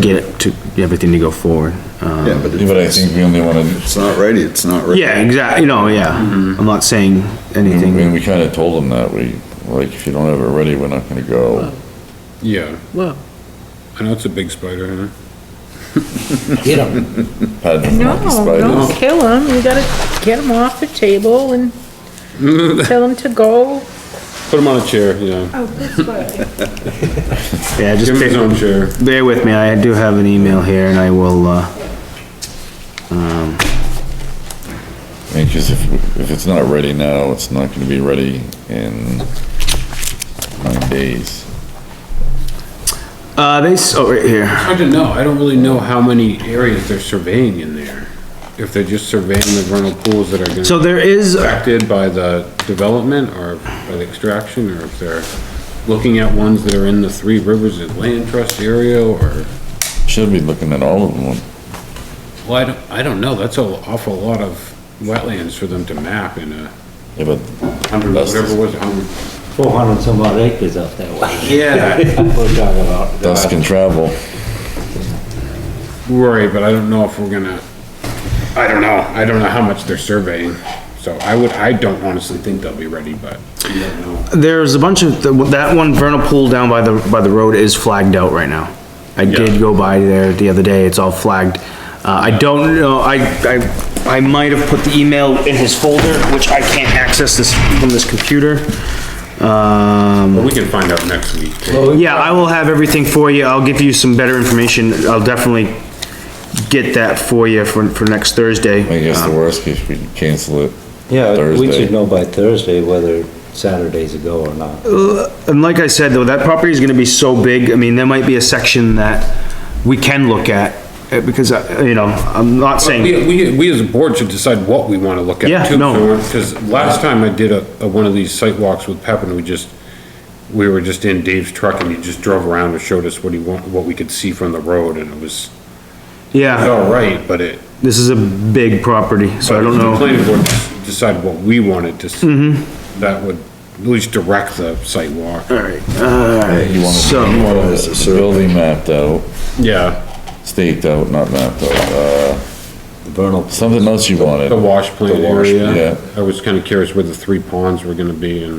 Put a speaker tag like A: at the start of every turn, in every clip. A: get it to, everything to go forward. Um,
B: Yeah, but
C: But I think
B: it's,
C: we only wanna,
B: it's not ready, it's not ready.
A: Yeah, exactly, you know, yeah, I'm not saying
C: I mean,
A: anything,
C: we kinda told them that, we, like, if you don't have it ready, we're not gonna go.
D: Yeah,
E: Well,
D: I know it's a big spider, huh?
E: get them.
C: Had the
F: No,
C: monkey spiders.
F: don't kill them, you gotta get them off the table and tell them to go.
D: Put him on a chair, yeah.
F: Oh, this way.
A: yeah, just
D: Give him his own
A: bear,
D: chair.
A: bear with me, I do have an email here and I will, uh,
C: I mean, 'cause if, if it's not ready now, it's not gonna be ready in nine days.
A: uh, they, s- oh, right here,
D: Hard to know, I don't really know how many areas they're surveying in there. If they're just surveying the vernal pools that are
A: so
D: gonna be
A: there is,
D: affected by the development or by the extraction, or if they're looking at ones that are in the Three Rivers Land Trust area, or,
C: Should be looking at all of them.
D: well, I don't, I don't know, that's an awful lot of wetlands for them to map in a
C: Yeah, but
D: hundred,
C: That's-
D: whatever it was, a hundred.
E: Four hundred and some odd acres out that way.
D: Yeah.
E: We're talking about.
C: dust can travel.
D: Right, but I don't know if we're gonna, I don't know, I don't know how much they're surveying, so I would, I don't honestly think they'll be ready, but you don't know.
A: there's a bunch of, that one vernal pool down by the, by the road is flagged out right now. I did go by there the other day, it's all flagged. Uh, I don't know, I, I, I might have put the email in his folder, which I can't access this from this computer. Um.
D: But we can find out next week.
A: Yeah, I will have everything for you. I'll give you some better information. I'll definitely get that for you for, for next
C: I
A: Thursday.
C: guess the worst case, we can cancel it.
E: Yeah, we
C: Thursday.
E: should know by Thursday whether Saturday's a go or not.
A: Uh, And like I said, though, that property is gonna be so big, I mean, there might be a section that we can look at, eh, because, I- you know, I'm not saying,
D: We, we, we as a board should decide what we wanna look
A: Yeah,
D: at too,
A: no.
D: because last time I did a, a, one of these site walks with Pep and we just, we were just in Dave's truck and he just drove around and showed us what he want, what we could see from the road, and it was, it was
A: yeah,
D: all right, but it,
A: this is a big property, so I don't
D: If the
A: know. Mm-hmm.
D: planning board decided what we wanted to, s- that would at least direct the site walk.
A: Alright, alright,
C: You
A: So-
C: want, you want the building mapped out,
D: Yeah,
C: staked out, not mapped out, uh,
E: Vernal,
C: something else you
D: the
C: wanted.
D: wash plant
C: The wash,
D: area.
C: yeah.
D: I was kinda curious where the three ponds were gonna be and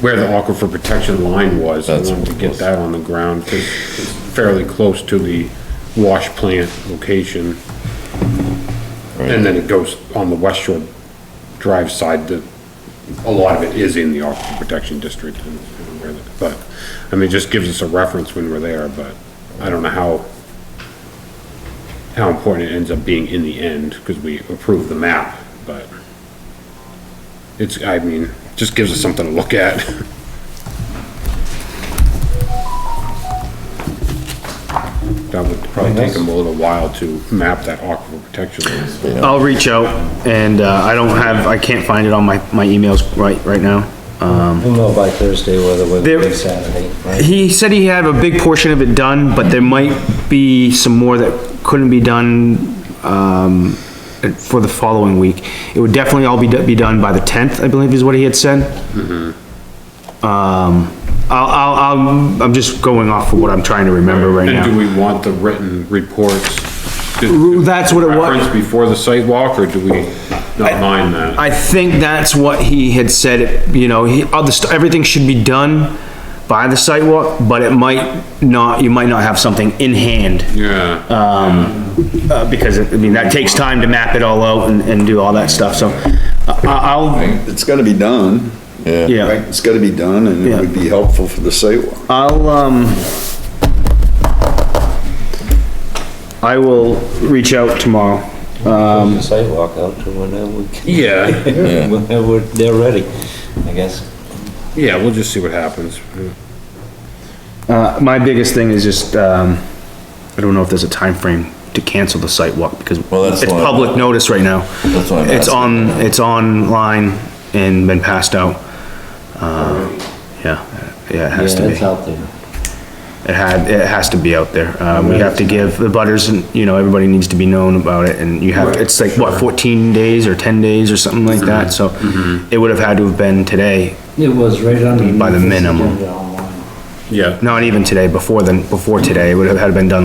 D: where the aquifer protection line was. I
C: That's
D: wanted to
C: what it
D: get
C: was.
D: that on the ground, 'cause it's fairly close to the wash plant location. And then it goes on the West Shore Drive side, the, a lot of it is in the aquifer protection district. and- and where the- But, I mean, it just gives us a reference when we're there, but I don't know how, how important it ends up being in the end, because we approve the map, but it's, I mean, just gives us something to look at. That would probably take them a little while to map that aquifer protection. area.
A: I'll reach out, and, uh, I don't have, I can't find it on my, my emails right, right now.
E: we'll know by Thursday whether we're
A: There-
E: going Saturday, right?
A: He said he had a big portion of it done, but there might be some more that couldn't be done, um, for the following week. It would definitely all be, be done by the tenth, I believe is what he had said.
D: Mm-hmm.
A: Um, I'll, I'll, I'll, I'm just going off of what I'm trying to remember right
D: And do
A: now.
D: we want the written reports?
A: Ru- that's what it was.
D: Reference before the site walk, or do we not mind that?
A: I think that's what he had said, you know, he, all the st everything should be done by the sidewalk, but it might not, you might not have something in hand
D: Yeah.
A: uh, because, I mean, that takes time to map it all out and, and do all that stuff, so. uh, I, I'll,
B: It's gotta be done,
C: Yeah,
B: right?
A: yeah,
B: It's gotta be done and it would be helpful for the sidewalk.
A: I'll, um, I will reach out tomorrow.
E: Um. Sidewalk out to whenever we can,
D: Yeah,
C: yeah,
E: whenever they're ready, I guess.
D: yeah, we'll just see what happens.
A: Uh, my biggest thing is just, um, I don't know if there's a time frame to cancel the site walk because
C: Well, that's
A: it's
C: what-
A: public notice right now.
C: That's what I'm
A: It's
C: asking.
A: on, it's online and been passed out. Uh, yeah, yeah, it
E: Yeah,
A: has to be.
E: it's out there.
A: It had, it has to be out there. Uh, we have to give the butters, and you know, everybody needs to be known about it and you have, it's like, what, fourteen days or ten days or something like that, so it would have had to have been today,
E: It was right underneath.
A: By the
E: this
A: minimum.
E: agenda online.
D: Yeah.
A: not even today, before then, before today, it would have had to been done